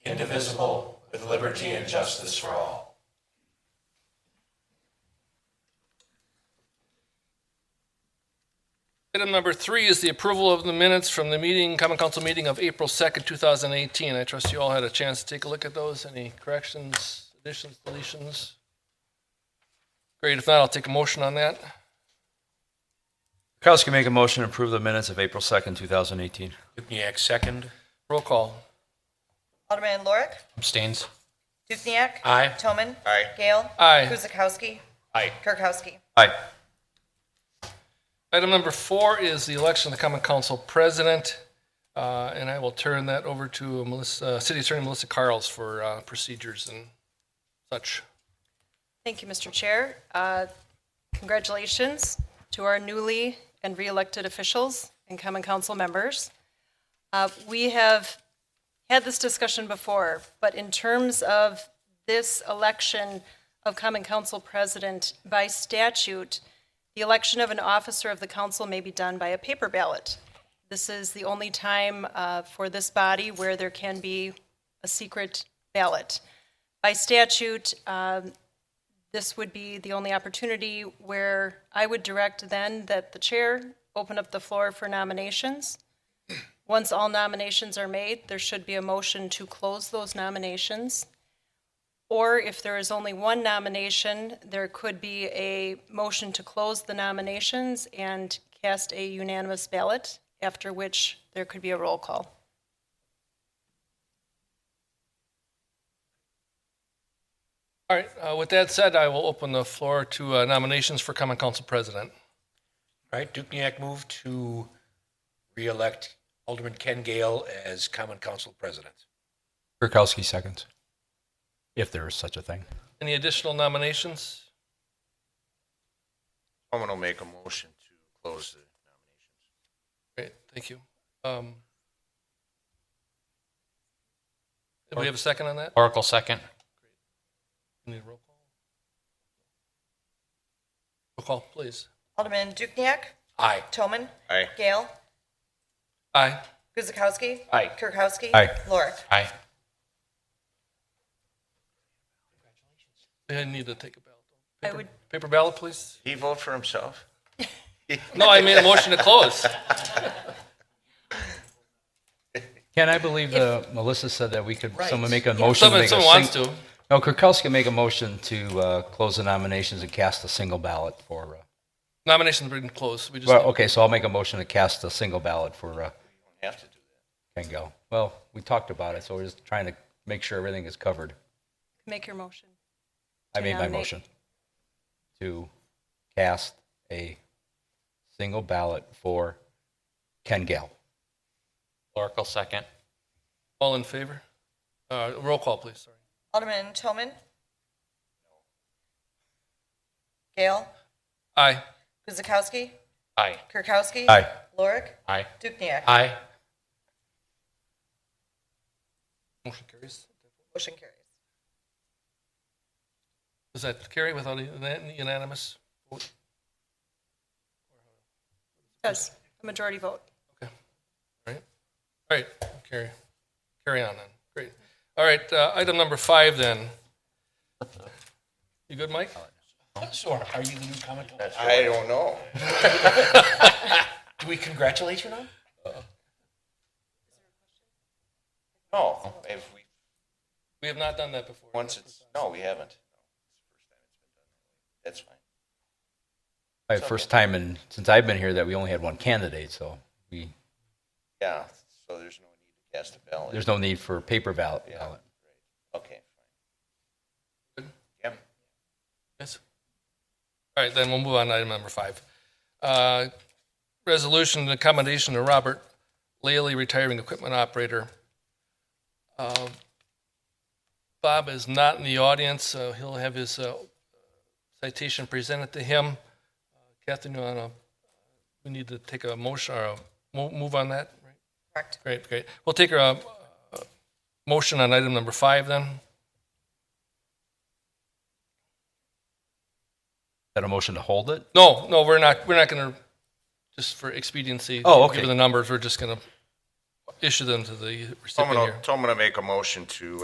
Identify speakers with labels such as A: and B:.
A: indivisible, with liberty and justice for all.
B: Item number three is the approval of the minutes from the meeting, common council meeting of April 2nd, 2018. I trust you all had a chance to take a look at those. Any corrections, additions, deletions? Great, if not, I'll take a motion on that.
C: Kirkowski make a motion to approve the minutes of April 2nd, 2018.
A: Dukniak, second.
B: Roll call.
D: Alderman Lorik.
A: Abstains.
D: Dukenyak.
A: Aye.
D: Toman.
A: Aye.
D: Gale.
B: Aye.
D: Guzekowski.
A: Aye.
D: Kirkowski.
C: Aye.
B: Item number four is the election of the common council president, uh, and I will turn that over to Melissa, uh, City Attorney Melissa Carles for uh, procedures and such.
E: Thank you, Mr. Chair. Uh, Congratulations to our newly and re-elected officials and common council members. Uh, We have had this discussion before, but in terms of this election of common council president, by statute, the election of an officer of the council may be done by a paper ballot. This is the only time uh, for this body where there can be a secret ballot. By statute, um, this would be the only opportunity where I would direct then that the chair open up the floor for nominations. Once all nominations are made, there should be a motion to close those nominations. Or if there is only one nomination, there could be a motion to close the nominations and cast a unanimous ballot, after which there could be a roll call.
B: All right, uh, with that said, I will open the floor to uh, nominations for common council president.
A: All right, Dukniak moved to reelect Alderman Ken Gale as Common Council President.
C: Kirkowski seconds. If there is such a thing.
B: Any additional nominations?
F: Someone will make a motion to close the
B: Great, thank you. Um, Do we have a second on that?
G: Oracle second.
B: Need a roll call? Roll call, please.
D: Alderman Dukenyak.
A: Aye.
D: Toman.
F: Aye.
D: Gale.
B: Aye.
D: Guzekowski.
A: Aye.
D: Kirkowski.
C: Aye.
D: Lorik.
G: Aye.
B: I need to take a ballot.
E: I
B: Paper-
E: would-
B: Paper ballot, please?
F: He vote for himself?
B: No, I made a motion to close.
C: Ken, I believe uh, Melissa said that we could, someone make a motion. to
B: Someone,
C: make a
B: someone wants
C: sing-
B: to.
C: No, Kirkowski make a motion to uh, close the nominations and cast a single ballot for, uh,
B: Nominations have been closed. We just,
C: well,
B: need-
C: okay, so I'll make a motion to cast a single ballot for uh,
F: Have to do
C: Ken Gale. Well, we talked about it, so we're just trying to make sure everything is covered.
E: Make your motion.
C: I made my
E: nominate-
C: motion to cast a single ballot for Ken Gale.
G: Oracle second.
B: all in favor? Uh, roll call, please, sorry.
D: Alderman Toman. Gale.
B: Aye.
D: Guzekowski.
G: Aye.
D: Kirkowski.
C: Aye.
D: Lorik.
G: Aye.
D: Dukenyak.
G: Aye.
B: Motion carries.
D: Motion carries.
B: Does that carry without a unan- unanimous?
E: Yes, a majority vote.
B: Right? All right, carry, carry on then. Great. All right, uh, item number five then. You good, Mike?
A: So are you the new Common Council?
F: that. I don't know.
A: Do we congratulate you now?
F: No, if we,
B: We have not done that before.
F: once it's, no, we haven't. That's fine.
C: My first time in, since I've been here, that we only had one candidate, so we,
F: Yeah, so there's no need to cast a ballot.
C: there's no need for a paper ballot.
F: Yeah. Okay, fine.
B: Good.
F: Yep.
B: Yes. All right, then we'll move on to item number five. Uh, Resolution and accommodation to Robert Laley, retiring equipment operator. Um, Bob is not in the audience, so he'll have his uh, citation presented to him. Catherine, you wanna, we need to take a motion, or a mo- move on that? right?
D: Correct.
B: Great, great. We'll take a uh, motion on item number five then.
C: That a motion to hold it?
B: No, no, we're not, we're not going to, just for expediency.
C: Oh, okay.
B: Given the numbers, we're just going to issue them to the recipient
F: Someone
B: here.
F: will, someone will make a motion to